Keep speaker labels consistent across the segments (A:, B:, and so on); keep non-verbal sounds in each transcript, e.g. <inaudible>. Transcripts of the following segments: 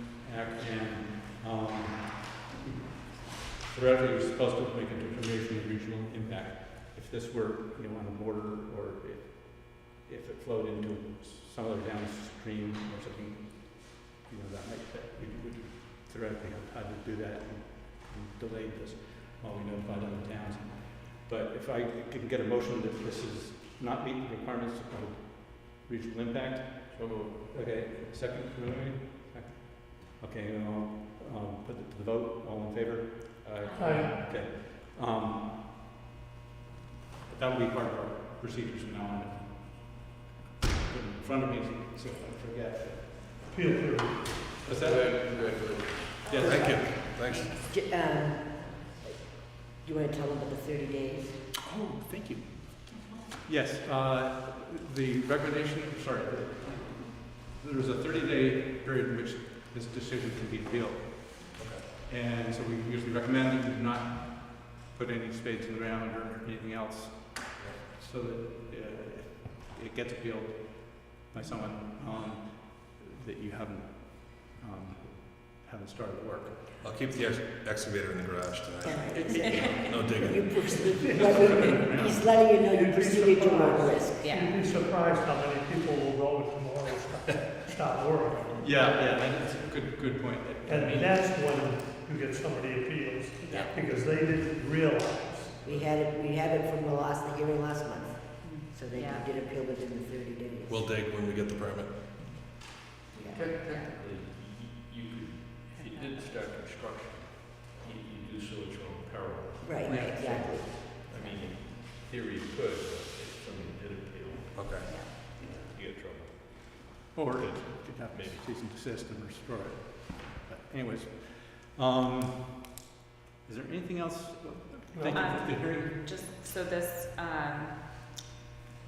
A: Theoretically, um, you're supposed to make a determination of regional impact. If this were, you know, on the border, or if, if it flowed into some other downstream or something, you know, that might, that we would theoretically have time to do that and and delayed this while we notified other towns. But if I can get a motion that this is not meeting the requirements of regional impact,
B: So moved.
A: okay, second, preliminary? Okay, and I'll, um, put it to the vote, all in favor?
B: Aye.
C: Aye.
A: Okay. Um, that will be part of our procedures from now on. In front of me, so I forget.
C: Feel free.
A: Was that?
B: Good, good, good.
A: Yes.
D: Thank you, thanks.
E: J- um, You want to tell them about the 30 days?
A: Oh, thank you. Yes, uh, the recommendation, sorry, there is a 30-day period in which this decision can be appealed. And so we usually recommend that you do not put any spades in the ground or anything else, so that uh, it gets appealed by someone, um, that you haven't, um, haven't started work.
D: I'll keep the ex- excavator in the
E: <laughs>
D: garage
E: All
D: tonight.
E: right.
D: No digging.
E: uh, You proceed- <laughs> He's letting you know you proceeded to work risk.
C: You'd be surprised how many people will go if tomorrow stop, stop work.
A: Yeah, yeah, that's a good, good point. I mean-
C: And that's when you get so many appeals, because they didn't realize.
E: We had it, we had it from the last, the hearing last month, so they
B: Yeah.
E: did appeal within the 30 days.
D: We'll dig when we get the permit.
E: Yeah.
B: Technically, you could, if you did start construction, you, you do so at your own peril.
E: Right,
A: Yeah.
E: exactly.
B: I mean, in theory you could, but if somebody did appeal,
D: Okay.
B: you get trouble.
A: Or it could have maybe cease and desist and restore it. But anyways, um, is there anything else? Thank you for the hearing.
F: Just, so this, um,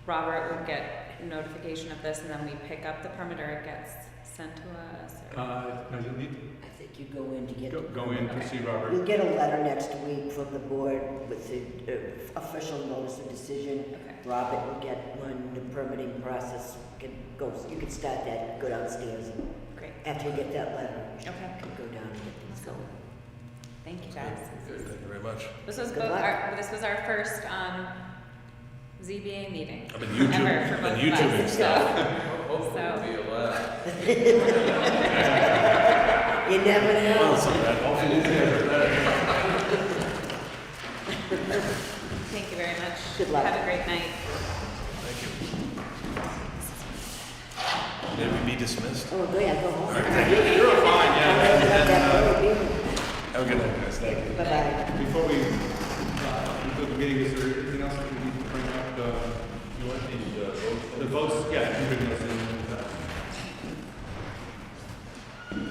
F: Robert will get notification of this and then we pick up the permit or it gets sent to us or?
A: Uh, no, you'll need
E: I think you go in to
A: to
E: get.
A: go, go in to see Robert.
E: You'll get a letter next week from the board with the uh, official notice of decision.
F: Okay,
E: Robert will get one, the permitting process can go, you can start that, go downstairs.
F: great,
E: After you get that letter, you
F: okay,
E: can go down and get things going.
F: thank you guys.
D: Good, thank you very much.
F: This was
E: Good
F: both
E: luck.
F: our, this was our first, um, ZBA meeting
D: I've been
F: ever for
D: YouTube,
F: both
D: been
F: of
D: YouTubing
F: us, <laughs>
D: stuff.
F: so,
B: Hopefully it'll be a lot.
E: You never know.
F: thank you very much.
E: Good luck.
F: Have a great night.
D: Thank you. May we be dismissed?
E: Oh, go ahead, go home.
D: You're fine,
A: uh,
E: yeah.
D: Have a good night, guys, thank you.
E: Bye-bye.
A: Before we, uh, conclude the meeting, is there anything else that we need to bring up? Uh,
B: You want these, uh, votes?
A: The votes, yeah, you can bring those in.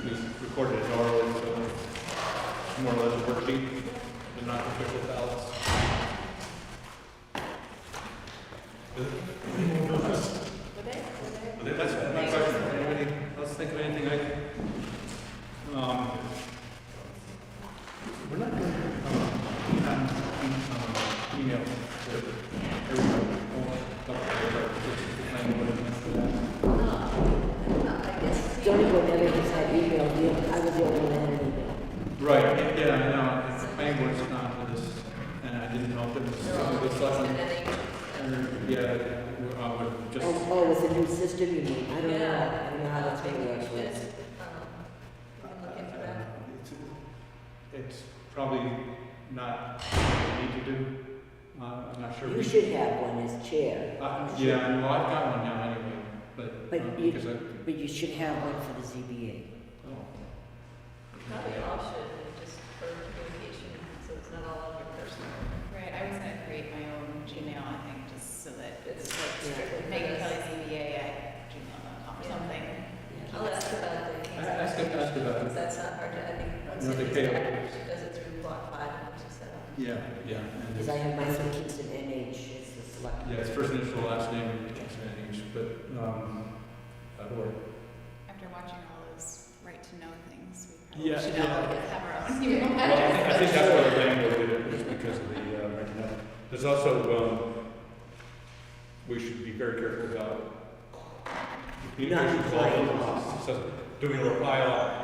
A: Please record it as oral, so it's more or less a worksheet, but not official ballots. Is it? Well, that- That's my question. Anybody else think of anything I can? Um, We're not going to, um, um, um, email. to everybody. Oh, don't worry about it. Just explain what it means to them.
E: Johnny will never just had email, you- I was the only one that had an email.
A: Right, yeah, yeah, I know, it's, planning board's not for this, and I didn't know if it was, it was like, and, yeah, uh, I would just,
E: Oh, oh, it's a new system, you mean, I don't know, I don't know how that's
F: Yeah.
E: gonna work, but.
A: It's- It's probably not what we need to do, uh, I'm not sure.
E: You
A: we-
E: should have one as chair,
A: Uh, yeah, I know, I've got one now anyway, but,
E: But
A: um,
E: you-
A: because I,
E: but you should have one for the ZBA.
A: oh.
G: Probably all should, just for communication, so it's not all on your personal.
F: Right, I was gonna create my own Gmail, I think, just so that
G: It's
E: Yeah.
G: strictly
F: Megan Kelly
G: business.
F: ZBA at gmail.com or
G: Yeah.
F: something.
E: Yeah.
G: I'll ask about the.
A: I, I asked, asked about
G: Because
A: it,
G: that's not hard to, I think, once
A: No, they
G: it's
A: pay.
G: established, it does it through block five and six, seven.
A: yeah, yeah. and
E: Because
A: it's-
E: I have my son Kingston NH, it's the select.
A: Yeah, it's first initial, last name, and English, but, um, uh, or,
F: After watching all those right to know things,
A: probably Yeah, should all
F: <laughs>
A: yeah.
F: have our
A: Well, I
F: own
A: think- I think that's why the landlord did it, was because of the, uh, renting out. There's also, um, we should be very careful about the communication
E: Not
A: clauses. So, Do we rely on